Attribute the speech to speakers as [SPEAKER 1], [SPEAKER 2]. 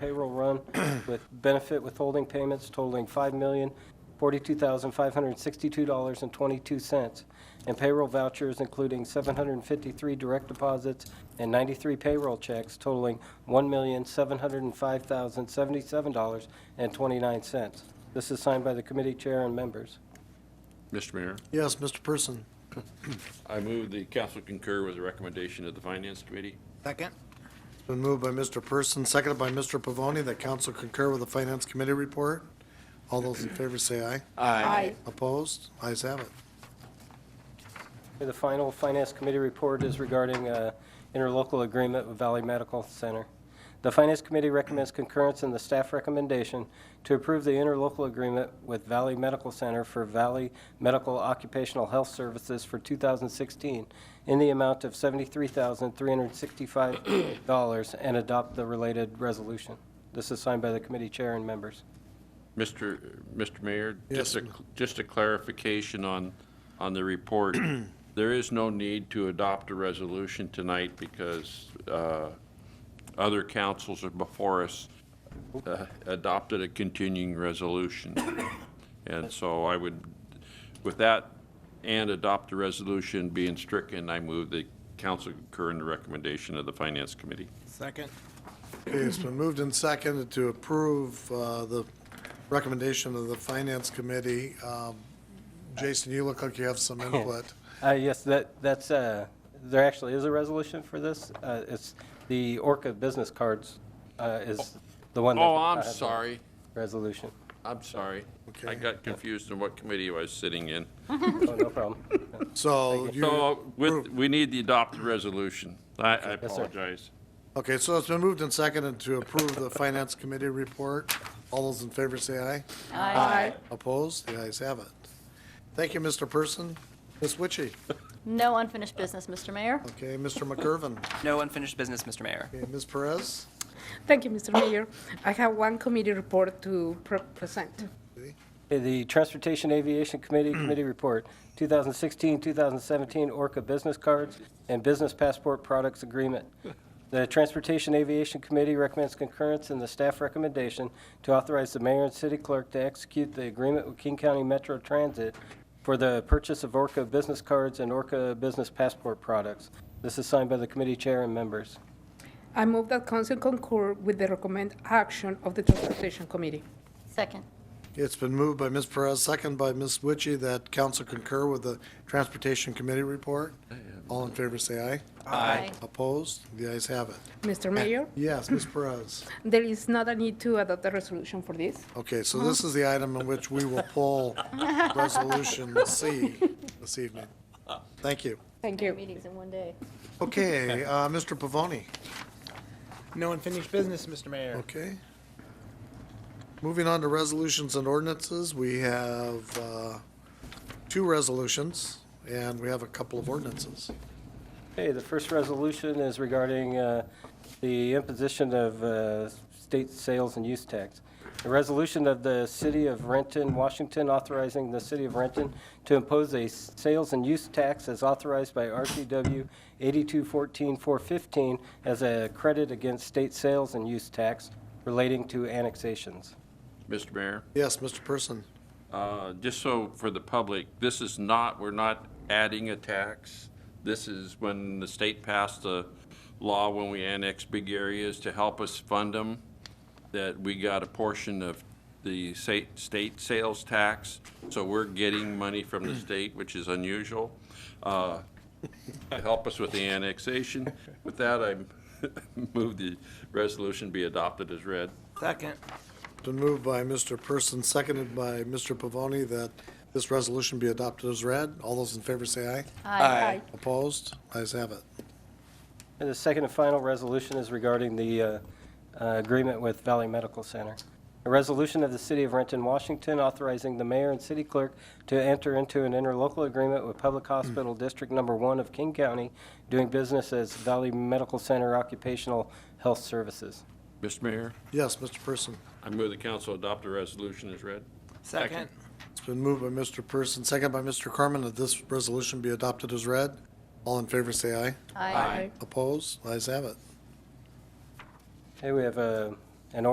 [SPEAKER 1] payroll run with benefit withholding payments totaling $5,042,562.22, and payroll vouchers including 753 direct deposits and 93 payroll checks totaling $1,705,077.29. This is signed by the committee chair and members.
[SPEAKER 2] Mr. Mayor,
[SPEAKER 3] Yes, Mr. Person.
[SPEAKER 2] I move the council concur with the recommendation of the Finance Committee.
[SPEAKER 4] Second?
[SPEAKER 3] It's Been moved by Mr. Person, seconded by Mr. Pavoni, that council concur with the Finance Committee report. All those in favor say aye.
[SPEAKER 4] Aye.
[SPEAKER 3] Opposed? Ayes have it.
[SPEAKER 1] The final Finance Committee report is regarding uh, interlocal agreement with Valley Medical Center. The Finance Committee recommends concurrence in the staff recommendation to approve the interlocal agreement with Valley Medical Center for Valley Medical Occupational Health Services for 2016 in the amount of $73,365 and adopt the related resolution. This is signed by the committee chair and members.
[SPEAKER 2] Mr. Mr. Mayor,
[SPEAKER 3] Yes,
[SPEAKER 2] just a, just a clarification on, on the report. There is no need to adopt a resolution tonight because uh, other councils are before us uh, adopted a continuing resolution. And so I would, with that, and adopt the resolution being stricken, I move the council concur in the recommendation of the Finance Committee.
[SPEAKER 4] Second?
[SPEAKER 3] Okay, it's been moved and seconded to approve uh, the recommendation of the Finance Committee. Um, Jason, you look like you have some input.
[SPEAKER 1] Uh, Yes, that, that's, uh, there actually is a resolution for this. Uh, It's the Orca Business Cards uh, is the one that...
[SPEAKER 2] Oh, I'm
[SPEAKER 1] uh,
[SPEAKER 2] sorry.
[SPEAKER 1] Resolution.
[SPEAKER 2] I'm sorry. I
[SPEAKER 3] Okay.
[SPEAKER 2] got confused in what committee I was sitting in.
[SPEAKER 1] Oh, no problem.
[SPEAKER 3] So you,
[SPEAKER 2] So with, we need the adopted resolution. I, I
[SPEAKER 1] Yes, sir.
[SPEAKER 2] apologize.
[SPEAKER 3] okay, so it's been moved and seconded to approve the Finance Committee report. All those in favor say aye.
[SPEAKER 5] Aye.
[SPEAKER 3] Opposed? The ayes have it. Thank you, Mr. Person. Ms. Witchy?
[SPEAKER 5] No unfinished business, Mr. Mayor.
[SPEAKER 3] Okay, Mr. McGurven.
[SPEAKER 6] No unfinished business, Mr. Mayor.
[SPEAKER 3] Okay, Ms. Perez?
[SPEAKER 7] Thank you, Mr. Mayor. I have one committee report to pre- present.
[SPEAKER 1] uh, The Transportation Aviation Committee Committee Report, 2016-2017 Orca Business Cards and Business Passport Products Agreement. The Transportation Aviation Committee recommends concurrence in the staff recommendation to authorize the mayor and city clerk to execute the agreement with King County Metro Transit for the purchase of Orca business cards and Orca business passport products. This is signed by the committee chair and members.
[SPEAKER 7] I move that council concur with the recommend action of the Transportation Committee.
[SPEAKER 5] Second.
[SPEAKER 3] It's been moved by Ms. Perez, second by Ms. Witchy, that council concur with the Transportation Committee report. All in favor, say aye.
[SPEAKER 5] Aye.
[SPEAKER 3] Opposed? The ayes have it.
[SPEAKER 7] Mr. Mayor,
[SPEAKER 3] Yes, Ms. Perez.
[SPEAKER 7] there is not a need to adopt a resolution for this.
[SPEAKER 3] Okay, so this is the item in which we will pull Resolution C this evening. Thank you.
[SPEAKER 7] Thank you.
[SPEAKER 5] Meetings in one day.
[SPEAKER 3] Okay, uh, Mr. Pavoni,
[SPEAKER 4] No unfinished business, Mr. Mayor.
[SPEAKER 3] okay? Moving on to resolutions and ordinances, we have uh, two resolutions, and we have a couple of ordinances.
[SPEAKER 1] Okay, the first resolution is regarding uh, the imposition of uh, state sales and use tax. A resolution of the City of Renton, Washington, authorizing the City of Renton to impose a s- sales and use tax as authorized by RCW 8214415 as a credit against state sales and use tax relating to annexations.
[SPEAKER 2] Mr. Mayor,
[SPEAKER 3] Yes, Mr. Person.
[SPEAKER 2] uh, just so for the public, this is not, we're not adding a tax. This is when the state passed the law when we annexed big areas to help us fund them, that we got a portion of the sa- state sales tax. So we're getting money from the state, which is unusual. Uh, to help us with the annexation. With that, I move the resolution be adopted as read.
[SPEAKER 4] Second?
[SPEAKER 3] Been moved by Mr. Person, seconded by Mr. Pavoni, that this resolution be adopted as read. All those in favor say aye.
[SPEAKER 4] Aye.
[SPEAKER 3] Opposed? Ayes have it.
[SPEAKER 1] And the second and final resolution is regarding the uh, uh, agreement with Valley Medical Center. A resolution of the City of Renton, Washington, authorizing the mayor and city clerk to enter into an interlocal agreement with Public Hospital District Number One of King County, doing business as Valley Medical Center Occupational Health Services.
[SPEAKER 2] Mr. Mayor,
[SPEAKER 3] Yes, Mr. Person.
[SPEAKER 2] I move the council adopt the resolution as read.
[SPEAKER 4] Second?
[SPEAKER 3] It's been moved by Mr. Person, seconded by Mr. Corman, that this resolution be adopted as read. All in favor say aye.
[SPEAKER 5] Aye.
[SPEAKER 3] Opposed? Ayes have it.
[SPEAKER 1] Okay, we have uh, a